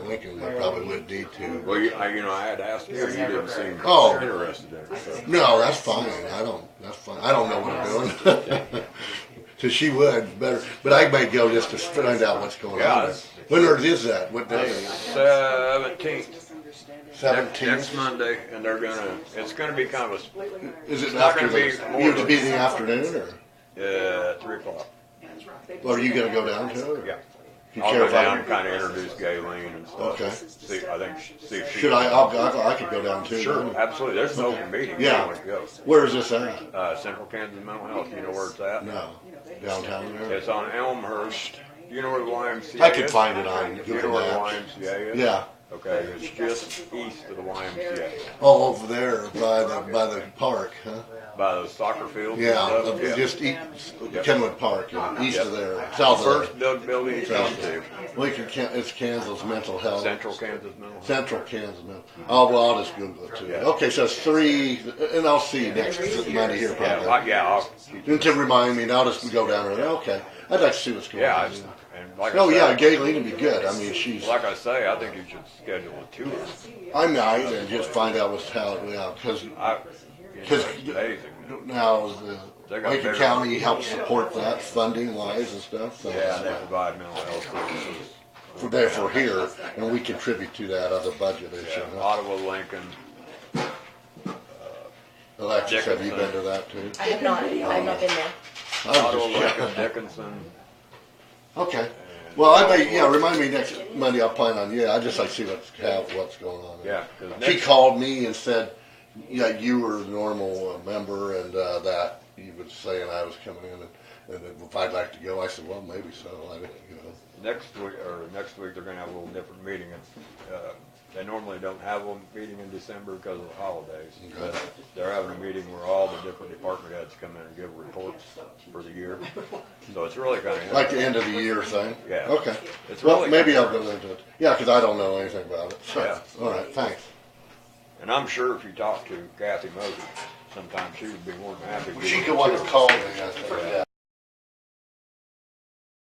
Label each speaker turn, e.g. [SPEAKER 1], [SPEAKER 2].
[SPEAKER 1] thinking they probably went D two.
[SPEAKER 2] Well, you, I, you know, I had asked you, you didn't seem
[SPEAKER 1] Oh.
[SPEAKER 2] interested in it, so.
[SPEAKER 1] No, that's fine. I don't. That's fine. I don't know what I'm doing. so she would better, but I may go just to find out what's going
[SPEAKER 2] Yeah,
[SPEAKER 1] on. There.
[SPEAKER 2] that's-
[SPEAKER 1] When or is that? What day? is it?
[SPEAKER 2] Seventeenth, next, next
[SPEAKER 1] Seventeenth.
[SPEAKER 2] Monday, and they're gonna, it's gonna be kind of
[SPEAKER 1] Is it
[SPEAKER 2] not
[SPEAKER 1] after
[SPEAKER 2] gonna be
[SPEAKER 1] the?
[SPEAKER 2] more
[SPEAKER 1] You have to
[SPEAKER 2] than-
[SPEAKER 1] be in the afternoon, or
[SPEAKER 2] a, uh, three o'clock.
[SPEAKER 1] or are you gonna go down to? It, or?
[SPEAKER 2] Yeah.
[SPEAKER 1] You
[SPEAKER 2] I'll
[SPEAKER 1] care
[SPEAKER 2] go
[SPEAKER 1] if I-
[SPEAKER 2] down and kind of introduce Galen and stuff.
[SPEAKER 1] Okay.
[SPEAKER 2] See, I think, she- see if she.
[SPEAKER 1] Should I? I'll, go- I could go down too.
[SPEAKER 2] Sure, absolutely, there's an open meeting, you
[SPEAKER 1] Yeah.
[SPEAKER 2] want to go.
[SPEAKER 1] Where is this at?
[SPEAKER 2] Uh, Central Kansas Mental Health, you know where it's at?
[SPEAKER 1] No, downtown there.
[SPEAKER 2] It's on Elmhurst, you know where the YMCA is?
[SPEAKER 1] I could find it on
[SPEAKER 2] You know
[SPEAKER 1] Google
[SPEAKER 2] where the
[SPEAKER 1] Maps.
[SPEAKER 2] YMCA is?
[SPEAKER 1] Yeah.
[SPEAKER 2] Okay, it's just east of the YMCA,
[SPEAKER 1] Oh, over there by the by the park, huh?
[SPEAKER 2] by the soccer field. and
[SPEAKER 1] Yeah,
[SPEAKER 2] stuff.
[SPEAKER 1] up-
[SPEAKER 2] Yeah.
[SPEAKER 1] just east,
[SPEAKER 2] Yeah.
[SPEAKER 1] Kenwood Park, you know, east
[SPEAKER 2] Yeah.
[SPEAKER 1] of there, south of
[SPEAKER 2] First Doug building you come to,
[SPEAKER 1] there. Lincoln, Ken- it's Kansas Mental Health.
[SPEAKER 2] Central Kansas Mental. Health.
[SPEAKER 1] Central Kansas Mental. Oh, well, I'll just Google it too.
[SPEAKER 2] Yeah.
[SPEAKER 1] Okay, so it's three, and I'll see you next Monday here
[SPEAKER 2] Yeah,
[SPEAKER 1] probably.
[SPEAKER 2] like, yeah, I'll,
[SPEAKER 1] And to remind me, and I'll just go down there, okay. I'd like to see what's going
[SPEAKER 2] yeah,
[SPEAKER 1] on.
[SPEAKER 2] it's- and like
[SPEAKER 1] Oh, yeah,
[SPEAKER 2] I say,
[SPEAKER 1] Gayleen would be good. I mean, she's,
[SPEAKER 2] like I say, I think you should schedule a tour.
[SPEAKER 1] I might, and just find out what's how, yeah, cause
[SPEAKER 2] I, you know,
[SPEAKER 1] Cause-
[SPEAKER 2] it's amazing.
[SPEAKER 1] now the
[SPEAKER 2] They got
[SPEAKER 1] Lincoln
[SPEAKER 2] bigger-
[SPEAKER 1] County helps support that funding wise and stuff, so.
[SPEAKER 2] Yeah, they provide mental health services.
[SPEAKER 1] We're there for here, and we contribute to that other budget issue.
[SPEAKER 2] Yeah, Ottawa, Lincoln,
[SPEAKER 1] Alexis, have you been to that too?
[SPEAKER 3] I have not, I have not been there.
[SPEAKER 1] I
[SPEAKER 2] Ottawa,
[SPEAKER 1] was just
[SPEAKER 2] Lincoln,
[SPEAKER 1] checking.
[SPEAKER 2] Dickinson.
[SPEAKER 1] Okay, well, I may, yeah, remind me next Monday, I'll plan on, yeah, I just like to see what's, how, what's going on.
[SPEAKER 2] Yeah, 'cause
[SPEAKER 1] She
[SPEAKER 2] next-
[SPEAKER 1] called me and said, yeah, you were a normal uh, member and, uh, that you would say, and I was coming in, and, and if I'd like to go, I said, well, maybe so, I didn't, you know.
[SPEAKER 2] Next week, or next week, they're gonna have a little different meeting. It's, uh, They normally don't have a meeting in December because of the holidays. But They're having a meeting where all the different department heads come in and give reports for the year. So it's really kind of.
[SPEAKER 1] Like the end of the year thing?
[SPEAKER 2] Yeah.
[SPEAKER 1] Okay.
[SPEAKER 2] It's
[SPEAKER 1] Well,
[SPEAKER 2] really
[SPEAKER 1] maybe I'll
[SPEAKER 2] good.
[SPEAKER 1] go into it. Yeah, because I don't know anything about it. So,
[SPEAKER 2] Yeah.
[SPEAKER 1] All right, thanks.
[SPEAKER 2] And I'm sure if you talk to Kathy Moses, sometimes she would be more than happy. to
[SPEAKER 1] She
[SPEAKER 2] give
[SPEAKER 1] could
[SPEAKER 2] you
[SPEAKER 1] want
[SPEAKER 2] a
[SPEAKER 1] to
[SPEAKER 2] tour.
[SPEAKER 1] call me, I think, yeah.